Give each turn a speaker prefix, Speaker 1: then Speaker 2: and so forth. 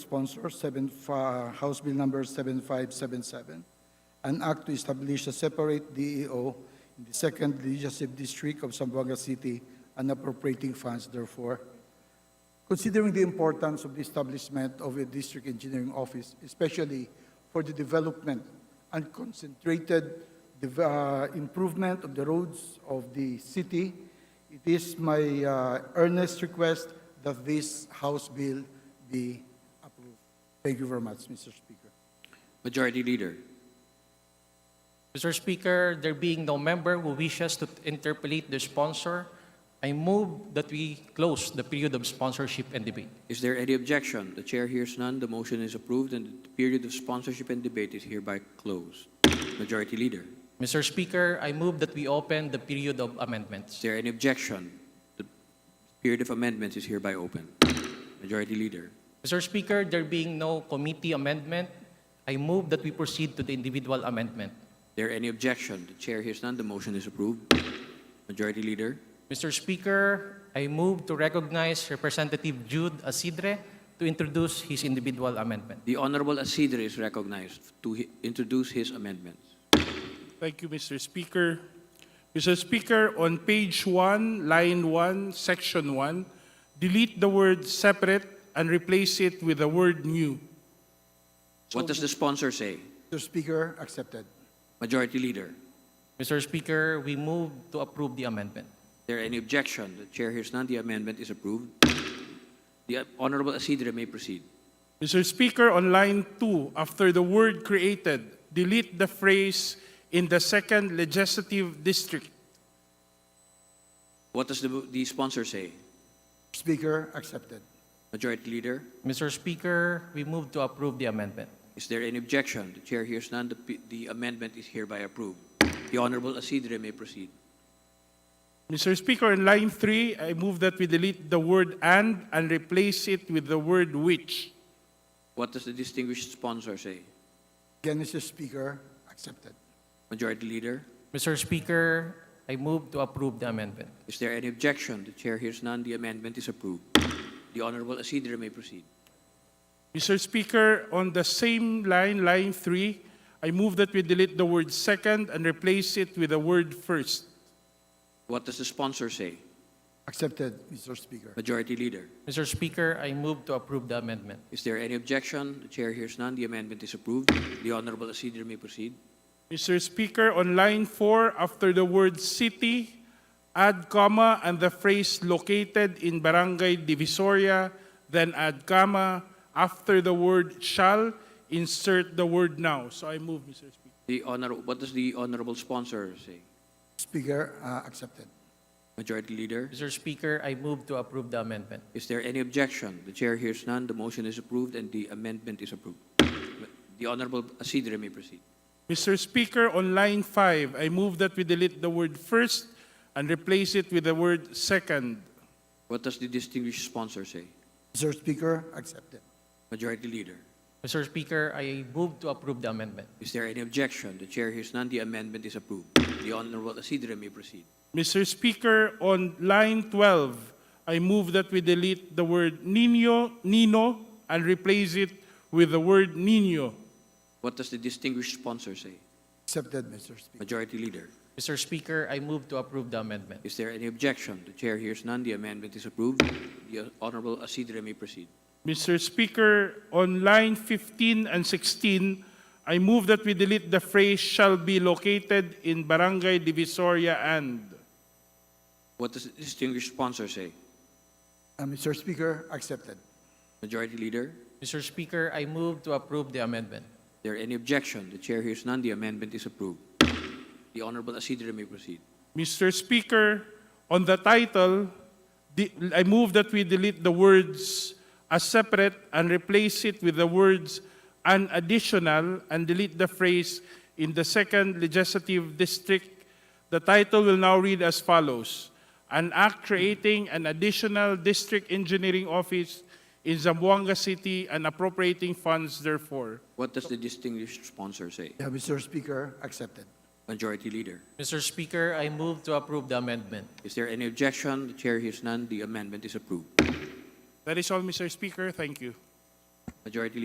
Speaker 1: sponsor, seven, fi- uh, House Bill Number 7577, an act to establish a separate DEO in the Second Legislative District of Zamboanga City and appropriating funds therefore. Considering the importance of the establishment of a district engineering office, especially for the development and concentrated dev- uh, improvement of the roads of the city, it is my uh, earnest request that this House bill be approved. Thank you very much, Mr. Speaker.
Speaker 2: Majority Leader.
Speaker 3: Mr. Speaker, there being no member who wishes to interpolate the sponsor, I move that we close the period of sponsorship and debate.
Speaker 2: Is there any objection? The chair hears none. The motion is approved and the period of sponsorship and debate is hereby closed. Majority Leader.
Speaker 3: Mr. Speaker, I move that we open the period of
Speaker 2: Is
Speaker 3: amendments.
Speaker 2: there any objection? The period of amendments is hereby open. Majority Leader.
Speaker 3: Mr. Speaker, there being no committee amendment, I move that we proceed to the individual amendment.
Speaker 2: Is there any objection? The chair hears none. The motion is approved. Majority Leader.
Speaker 3: Mr. Speaker, I move to recognize Representative Jude Asidre to introduce his individual amendment.
Speaker 2: The Honorable Asidre is recognized to hi- introduce his amendments.
Speaker 4: Thank you, Mr. Speaker. Mr. Speaker, on page 1, line 1, section 1, delete the word separate and replace it with the word new.
Speaker 2: What does the sponsor say?
Speaker 1: Mr. Speaker, accepted.
Speaker 2: Majority Leader. Is
Speaker 3: Mr. Speaker, we move to approve the amendment.
Speaker 2: there any objection? The chair hears none. The amendment is approved. The Honorable Asidre may proceed.
Speaker 4: Mr. Speaker, on line 2, after the word created, delete the phrase in the second legislative district.
Speaker 2: What does the, the sponsor say?
Speaker 1: Speaker, accepted.
Speaker 2: Majority Leader,
Speaker 3: Mr. Speaker, we move to approve the amendment.
Speaker 2: is there any objection? The chair hears none. The, p- the amendment is hereby approved. The Honorable Asidre may proceed.
Speaker 4: Mr. Speaker, on line 3, I move that we delete the word and and replace it with the word which.
Speaker 2: What does the distinguished sponsor say?
Speaker 1: Again, Mr. Speaker, accepted.
Speaker 2: Majority Leader,
Speaker 3: Mr. Speaker, I move to approve the amendment.
Speaker 2: is there any objection? The chair hears none. The amendment is approved. The Honorable Asidre may proceed.
Speaker 4: Mr. Speaker, on the same line, line 3, I move that we delete the word second and replace it with the word first.
Speaker 2: What does the sponsor say?
Speaker 1: Accepted, Mr. Speaker.
Speaker 2: Majority Leader,
Speaker 3: Mr. Speaker, I move to approve the amendment.
Speaker 2: is there any objection? The chair hears none. The amendment is approved. The Honorable Asidre may proceed.
Speaker 4: Mr. Speaker, on line 4, after the word city, add comma and the phrase located in Barangay Divisoria, then add comma. After the word shall, insert the word now. So I move, Mr. Speaker.
Speaker 2: The honor, what does the Honorable sponsor say?
Speaker 1: Speaker, uh, accepted.
Speaker 2: Majority Leader,
Speaker 3: Mr. Speaker, I move to approve the amendment.
Speaker 2: Is there any objection? The chair hears none. The motion is approved and the amendment is approved. The Honorable Asidre may proceed.
Speaker 4: Mr. Speaker, on line 5, I move that we delete the word first and replace it with the word second.
Speaker 2: What does the distinguished sponsor say?
Speaker 1: Mr. Speaker, accepted.
Speaker 2: Majority Leader.
Speaker 3: Mr. Speaker, I move to approve the amendment.
Speaker 2: Is there any objection? The chair hears none. The amendment is approved. The Honorable Asidre may proceed.
Speaker 4: Mr. Speaker, on line 12, I move that we delete the word Nino, Nino and replace it with the word Nino.
Speaker 2: What does the distinguished sponsor say?
Speaker 1: Accepted, Mr. Speaker.
Speaker 2: Majority Leader.
Speaker 3: Mr. Speaker, I move to approve the amendment.
Speaker 2: Is there any objection? The chair hears none. The amendment is approved. The Honorable Asidre may proceed.
Speaker 4: Mr. Speaker, on line 15 and 16, I move that we delete the phrase shall be located in Barangay Divisoria and.
Speaker 2: What does the distinguished sponsor say?
Speaker 1: Uh, Mr. Speaker, accepted.
Speaker 2: Majority Leader.
Speaker 3: Mr. Speaker, I move to approve the amendment.
Speaker 2: Is there any objection? The chair hears none. The amendment is approved. The Honorable Asidre may proceed.
Speaker 4: Mr. Speaker, on the title, the- I move that we delete the words "as separate" and replace it with the words "an additional" and delete the phrase "in the second legislative district." The title will now read as follows: "An act creating an additional district engineering office in Zamboanga City and appropriating funds therefore."
Speaker 2: What does the distinguished sponsor say?
Speaker 1: Yeah, Mr. Speaker, accepted.
Speaker 2: Majority Leader.
Speaker 3: Mr. Speaker, I move to approve the amendment.
Speaker 2: Is there any objection? The chair hears none. The amendment is approved.
Speaker 4: That is all, Mr. Speaker. Thank you.
Speaker 2: Majority